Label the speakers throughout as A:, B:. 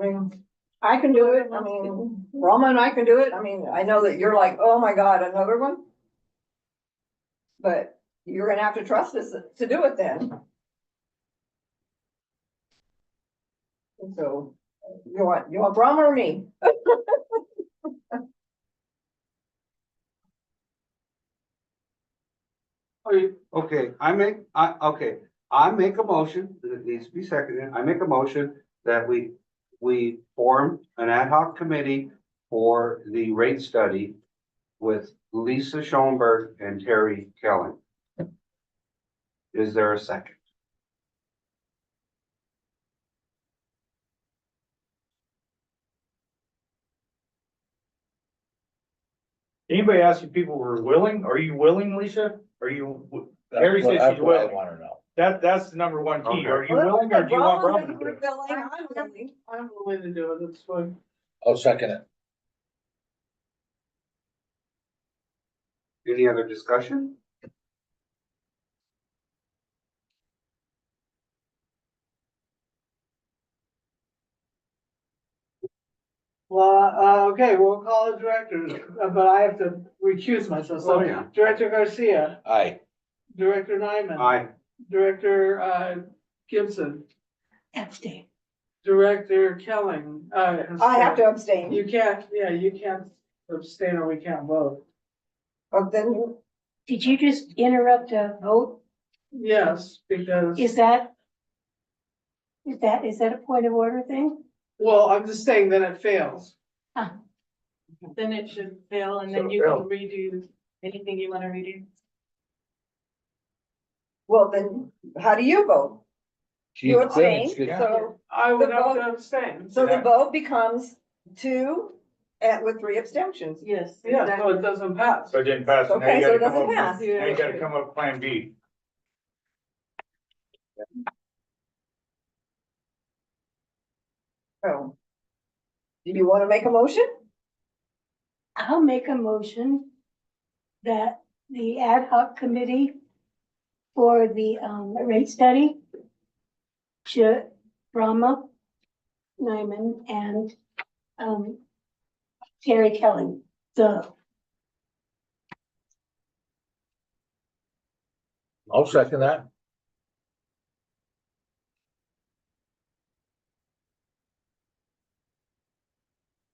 A: I mean, I can do it, I mean, Roma and I can do it, I mean, I know that you're like, oh my god, another one. But you're gonna have to trust us to do it then. And So, you want, you want Roma or me?
B: Okay, Okay, I make, I, okay, I make a motion, it needs to be seconded, I make a motion that we, we form an ad hoc committee for the rate study with Lisa Schoenberg and Terry Kelly. Is there a second?
C: Anybody asking people were willing? Are you willing, Lisa? Are you, Harry says she's willing.
D: Want to know.
C: that, that's the number one key.
B: Okay.
C: Are you willing or do you want Robin to do it?
A: I'm willing.
E: I'm willing to do it, that's fine.
D: I'll second it.
B: Any other discussion?
E: Well, uh, okay, we'll call it directors, uh, but I have to recuse myself,
B: Oh,
E: so
B: yeah.
E: Director Garcia,
D: Aye.
E: Director Nyman,
B: Aye.
E: Director, uh, Gibson,
F: Abstain.
E: Director Kelling, uh.
A: I have to abstain,
E: You can't, yeah, you can't abstain or we can't vote,
A: but Oh, then,
F: Did you just interrupt a vote?
E: yes, because,
F: Is that? Is that, is that a point of order thing?
E: well, I'm just saying that it fails.
G: Then it should fail and
C: So
G: then you
C: fail.
G: can redo anything you wanna redo.
A: well, then, how do you vote?
D: She
A: You
D: thinks
A: abstain,
D: it's-
A: so.
E: I would
A: The
E: have
A: vote-
E: to abstain,
A: So the vote becomes two and with three abstentions.
G: Yes.
E: yeah, so
G: exactly.
E: it doesn't pass.
C: So it didn't pass. and now
A: Okay,
C: you
A: so it
C: gotta come
A: doesn't
C: up with-
A: pass.
C: Now you gotta come up with plan B.
A: So. Do you want to make a motion?
F: I'll make a motion that the ad hoc committee for the um rate study should Rama, Nyman and um Terry Kelly, the
D: I'll second that.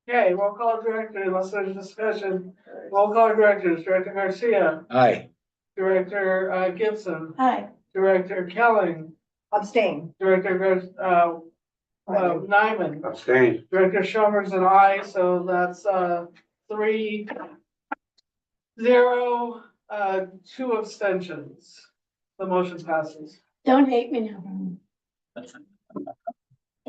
E: Okay, we'll call director, unless there's discussion,
G: Uh,
E: we'll call directors, Director Garcia,
D: Aye.
E: Director uh, Gibson,
F: hi.
E: Director Kelling,
A: Abstain.
E: Director Gar- uh, uh,
A: Right.
E: Nyman,
B: Abstain.
E: Director Schomer's an aye, so that's, uh, three, zero, uh, two abstentions. The motion passes.
F: Don't hate me now.
G: Mm-hmm.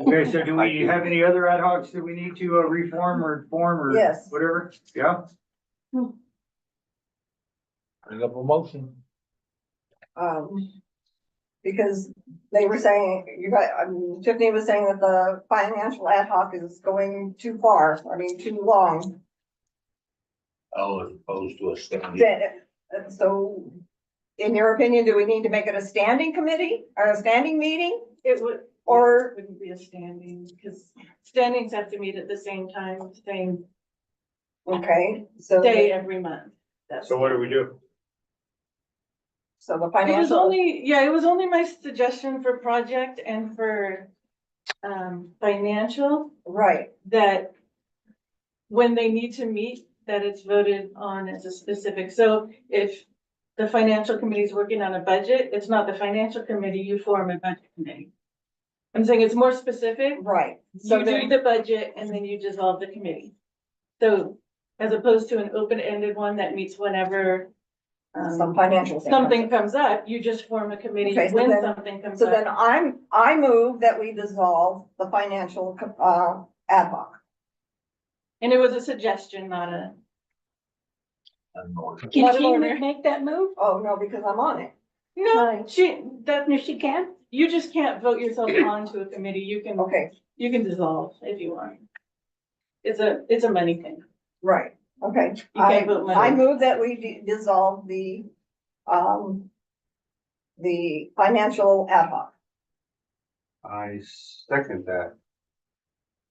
H: Okay, so do we have any other ad hocs that we need to uh, reform or form or
A: Yes.
H: whatever? Yeah,
D: Bring up a motion.
A: Um. Because they were saying, you got, I mean, Tiffany was saying that the financial ad hoc is going too far, I mean, too long.
D: Oh, as opposed to a standing.
A: Then, uh, So, in your opinion, do we need to make it a standing committee or a standing meeting?
G: It would.
A: Or-
G: Wouldn't be a standing, cause standings have to meet at the same time, same
A: Okay, so,
G: day
A: the-
G: every month. That's-
C: So what do we do?
A: so the
G: It was
A: financial,
G: only, yeah, it was only my suggestion for project and for um financial
A: right,
G: that when they need to meet, that it's voted on as a specific. So if the financial committee is working on a budget, it's not the financial committee, you form a budget committee. I'm saying it's more specific.
A: right. So
G: You do
A: then,
G: the budget and then you dissolve the committee. So as opposed to an open-ended one that meets whenever um,
A: some financial. thing.
G: something comes up, you just form a committee
A: Okay, so
G: when
A: then-
G: something comes
A: So then
G: up.
A: I'm, I move that we dissolve the financial, uh, ad hoc.
G: And it was a suggestion, not a.
F: Can
G: Point of
F: she
G: order.
F: make that move?
A: Oh, no, because I'm on it.
G: No,
F: Right.
G: she, that,
F: No, she can.
G: You just can't vote yourself onto a committee. You can,
A: Okay,
G: you can dissolve if you want. It's a, it's a money thing.
A: right, okay.
G: You can't
A: I,
G: vote
A: I
G: money.
A: move that we de- dissolve the, um, the financial ad hoc.
B: I second that.